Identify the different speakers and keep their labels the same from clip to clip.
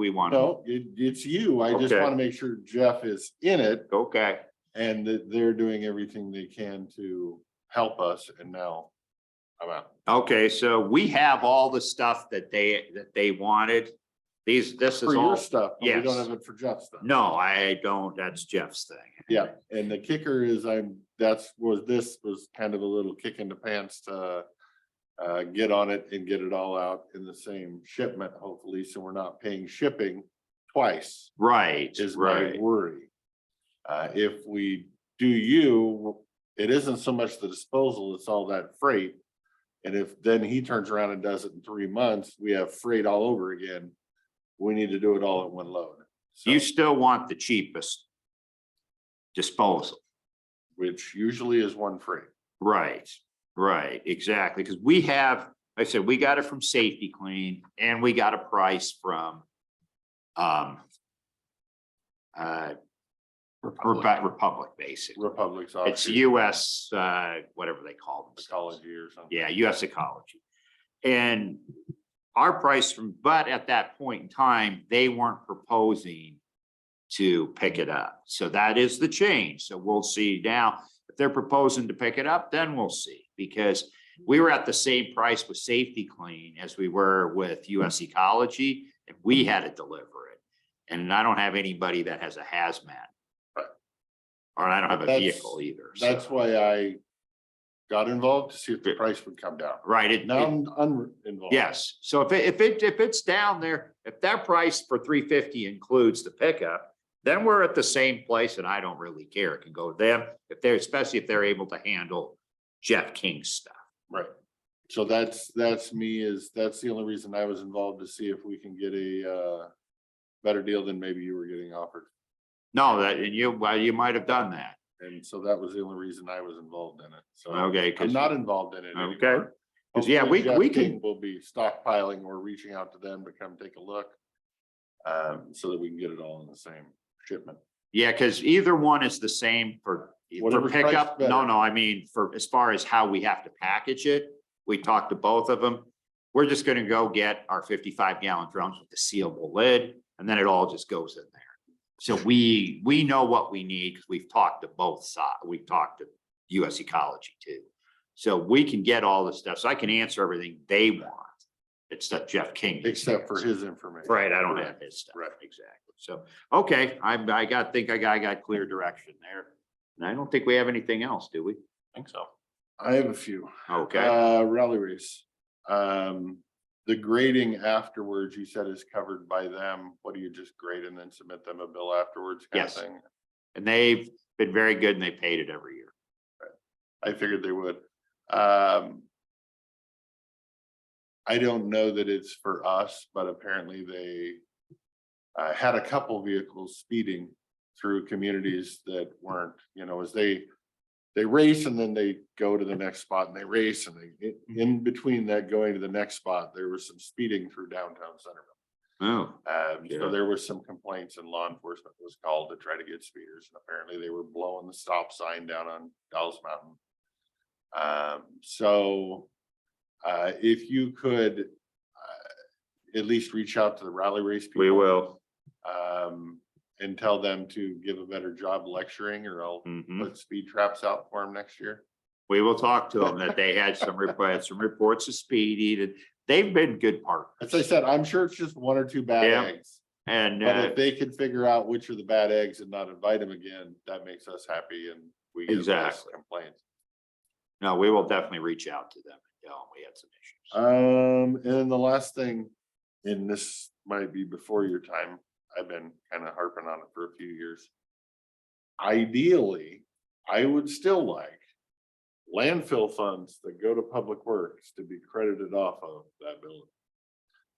Speaker 1: we want. to
Speaker 2: No, it, it's you. I just
Speaker 1: Okay.
Speaker 2: want to make sure Jeff is in it
Speaker 1: Okay,
Speaker 2: and that they're doing everything they can to help us and now I'm out.
Speaker 1: okay, so we have all the stuff that they, that they wanted. These, this
Speaker 2: For
Speaker 1: is
Speaker 2: your
Speaker 1: all,
Speaker 2: stuff, but we don't
Speaker 1: yes.
Speaker 2: have it for Jeff's stuff.
Speaker 1: no, I don't, that's Jeff's thing.
Speaker 2: Yeah, and the kicker is I'm, that's, was, this was kind of a little kick in the pants to uh, get on it and get it all out in the same shipment, hopefully, so we're not paying shipping twice
Speaker 1: Right,
Speaker 2: is my
Speaker 1: right.
Speaker 2: worry. Uh, if we do you, it isn't so much the disposal, it's all that freight. And if then he turns around and does it in three months, we have freight all over again. We need to do it all in one load. So,
Speaker 1: You still want the cheapest disposal.
Speaker 2: which usually is one freight.
Speaker 1: Right, right, exactly, because we have, like I said, we got it from Safety Clean and we got a price from um uh Repu- Republic, basically.
Speaker 2: Republic's.
Speaker 1: It's
Speaker 2: offshoot.
Speaker 1: US, uh, whatever they call them.
Speaker 2: Ecology or something.
Speaker 1: Yeah, US Ecology. And our price from, but at that point in time, they weren't proposing to pick it up. So that is the change. So we'll see now. If they're proposing to pick it up, then we'll see. Because we were at the same price with Safety Clean as we were with US Ecology, and we had to deliver it. And I don't have anybody that has a hazmat.
Speaker 2: Right.
Speaker 1: Or I don't have a
Speaker 2: That's-
Speaker 1: vehicle either. so-
Speaker 2: That's why I got involved to see if the price would come down.
Speaker 1: Right, it,
Speaker 2: Now
Speaker 1: it-
Speaker 2: I'm uninvolved.
Speaker 1: Yes, so if it, if it, if it's down there, if that price for three fifty includes the pickup, then we're at the same place and I don't really care. It can go to them, if they're, especially if they're able to handle Jeff King's stuff.
Speaker 2: Right. So that's, that's me is, that's the only reason I was involved to see if we can get a uh better deal than maybe you were getting offered.
Speaker 1: No, that, and you, well, you might have done that,
Speaker 2: And so that was the only reason I was involved in it. So
Speaker 1: okay?
Speaker 2: Uh, I'm
Speaker 1: 'cause-
Speaker 2: not involved in it anymore.
Speaker 1: Okay. 'Cause, yeah,
Speaker 2: Hopefully
Speaker 1: we-
Speaker 2: Jeff
Speaker 1: we can-
Speaker 2: King Will be stockpiling or reaching out to them to come take a look. Um, so that we can get it all in the same shipment.
Speaker 1: Yeah, because either one is the same for, for
Speaker 2: Whatever's priced
Speaker 1: pickup. No,
Speaker 2: better.
Speaker 1: no, I mean, for, as far as how we have to package it, we talked to both of them. We're just gonna go get our fifty-five gallon drums with the sealable lid, and then it all just goes in there. So we, we know what we need, because we've talked to both sides, we've talked to US Ecology too. So we can get all this stuff, so I can answer everything they want. It's that Jeff King.
Speaker 2: Except for his information.
Speaker 1: Right, I don't have his stuff.
Speaker 2: Right.
Speaker 1: Exactly. So, okay, I'm, I got, think I got, I got clear direction there. And I don't think we have anything else, do we?
Speaker 2: think so. I have a few.
Speaker 1: Okay,
Speaker 2: Uh, rally race. Um, the grading afterwards, you said is covered by them. What do you just grade and then submit them a bill afterwards? kind of
Speaker 1: Yes.
Speaker 2: thing?
Speaker 1: and they've been very good and they paid it every year.
Speaker 2: I figured they would. Um. I don't know that it's for us, but apparently they. Uh, had a couple vehicles speeding through communities that weren't, you know, as they. They race and then they go to the next spot and they race and they, in- in between that going to the next spot, there was some speeding through downtown Centerville.
Speaker 1: Oh,
Speaker 2: Um,
Speaker 1: Yeah.
Speaker 2: so there was some complaints and law enforcement was called to try to get speeders. and Apparently they were blowing the stop sign down on Dolls Mountain. Um, so, uh, if you could, uh, at least reach out to the rally race. people,
Speaker 1: will.
Speaker 2: Um, and tell them to give a better job lecturing or I'll
Speaker 1: Mhm.
Speaker 2: put speed traps out for them next year.
Speaker 1: We will talk to them that they had some reports, some reports of speed and they've been good
Speaker 2: As I
Speaker 1: partners.
Speaker 2: said, I'm sure it's just one or two bad
Speaker 1: Yeah.
Speaker 2: eggs.
Speaker 1: And,
Speaker 2: But
Speaker 1: uh,
Speaker 2: if they can figure out which are the bad eggs and not invite them again, that makes us happy and we get less
Speaker 1: Exactly.
Speaker 2: complaints.
Speaker 1: no, we will definitely reach out to them. and tell them we had some issues.
Speaker 2: Um, and then the last thing, and this might be before your time, I've been kind of harping on it for a few years. Ideally, I would still like landfill funds that go to public works to be credited off of that building.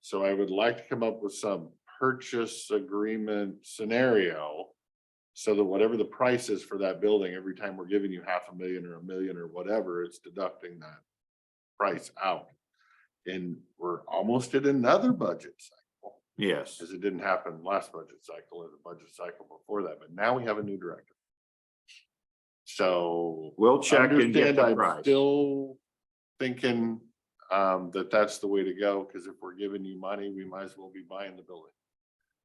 Speaker 2: So I would like to come up with some purchase agreement scenario. So that whatever the price is for that building, every time we're giving you half a million or a million or whatever, it's deducting that price out. And we're almost at another budget cycle,
Speaker 1: Yes.
Speaker 2: because it didn't happen last budget cycle or the budget cycle before that, but now we have a new director. So.
Speaker 1: We'll check and get
Speaker 2: understand
Speaker 1: the
Speaker 2: I'm
Speaker 1: price.
Speaker 2: Still thinking um that that's the way to go, because if we're giving you money, we might as well be buying the building.